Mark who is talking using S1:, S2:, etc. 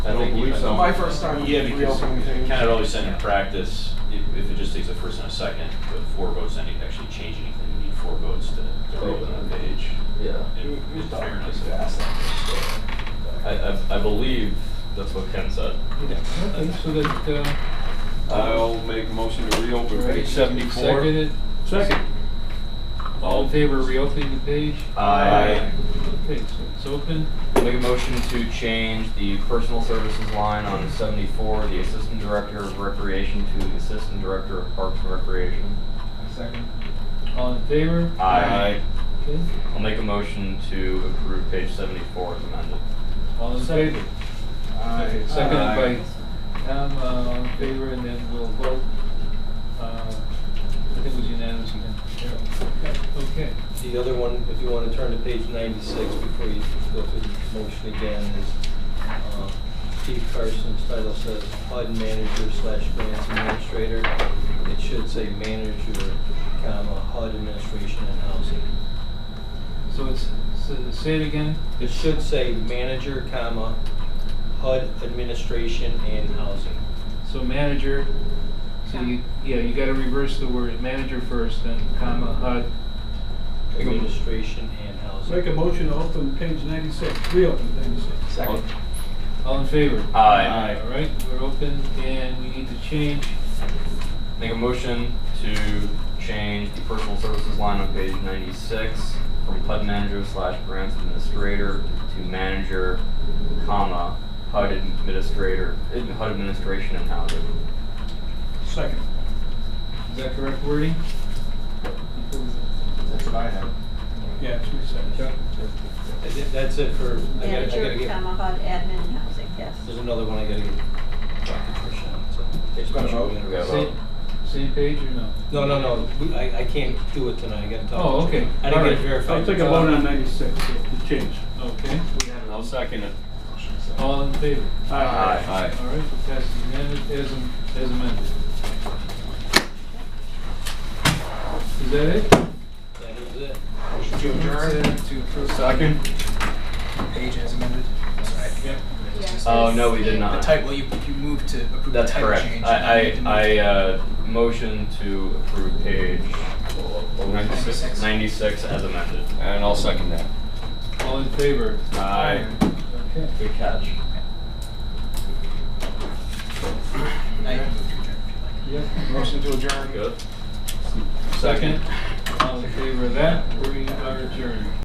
S1: so-
S2: my first time
S1: Yeah, because
S2: reopening things.
S1: kind of always said in practice, if, if it just takes a first and a second, but four votes, then you actually change anything, you need four votes to, to reopen the page.
S3: Yeah.
S2: We-
S1: in-
S2: we've
S1: in
S2: done
S1: fairness.
S2: pretty fast on this, so-
S3: I, I, I believe that's what Ken said.
S4: Okay, so that, uh,
S5: I'll make a motion to reopen page seventy-four.
S4: seconded,
S5: Second.
S4: all in favor of reopening the page?
S3: I
S4: Okay, so it's open.
S3: make a motion to change the personal services line on seventy-four, the assistant director of recreation to the assistant director of parks and recreation.
S2: Second.
S4: All in favor?
S3: I
S4: Okay,
S3: I'll make a motion to approve page seventy-four as amended.
S4: all in favor?
S2: Aye.
S4: Seconded by Tom, uh, all in favor, and then we'll vote. Uh, I think it was unanimous again. Okay,
S6: The other one, if you want to turn to page 96 before you go through the motion again, is uh, Chief Carson's title says HUD manager slash grants administrator. It should say manager, comma, HUD administration and housing.
S4: so it's, so say it again.
S6: It should say manager, comma, HUD administration and housing.
S4: So manager, so you, yeah, you gotta reverse the word manager first, then comma HUD. Make a mo-
S6: Administration and housing.
S7: Make a motion to open page ninety-six, reopen ninety-six.
S6: Second.
S4: All in favor?
S3: Aye.
S4: All right, we're open, and we need to change,
S3: Make a motion to change the personal services line on page ninety-six from HUD manager slash grants administrator to manager, comma, HUD administrator, eh, HUD administration and housing.
S7: Second.
S4: is that correct wording?
S2: That's what I have.
S7: Yeah, it's me second.
S6: That's it for, I gotta- I gotta
S8: Manager,
S6: get,
S8: comma, HUD admin housing, yes.
S6: there's another one I gotta get Dr. Trish on, so. there's
S2: Gotta
S6: two
S2: vote.
S6: in a row.
S3: Yeah, vote.
S4: Same, same page or no?
S6: No, no, no, we- I, I can't do it tonight, I gotta talk.
S4: Oh,
S6: to you.
S4: okay.
S6: I didn't get it
S4: Alright.
S6: verified. uh,
S7: I'll take Oh, a vote on ninety-six, the change.
S4: Okay,
S5: I'll second it.
S4: all in favor?
S7: Aye.
S5: Aye.
S4: All right, that's amended, as am- as amended. Is that it?
S6: That is it.
S2: Motion to adjourn. To approve.
S3: Second.
S2: Page as amended.
S4: Yeah.
S3: Oh, no, we did not.
S2: well, you, you moved to approve
S3: That's correct. I, I, I, uh, motion to approve page
S2: Ninety-six.
S3: ninety-six as amended.
S5: And I'll second that.
S4: All in favor?
S3: Aye.
S4: Okay.
S3: Good catch.
S4: Yep.
S2: Motion to adjourn.
S3: Good.
S4: Second, all in favor of that, we are adjourned.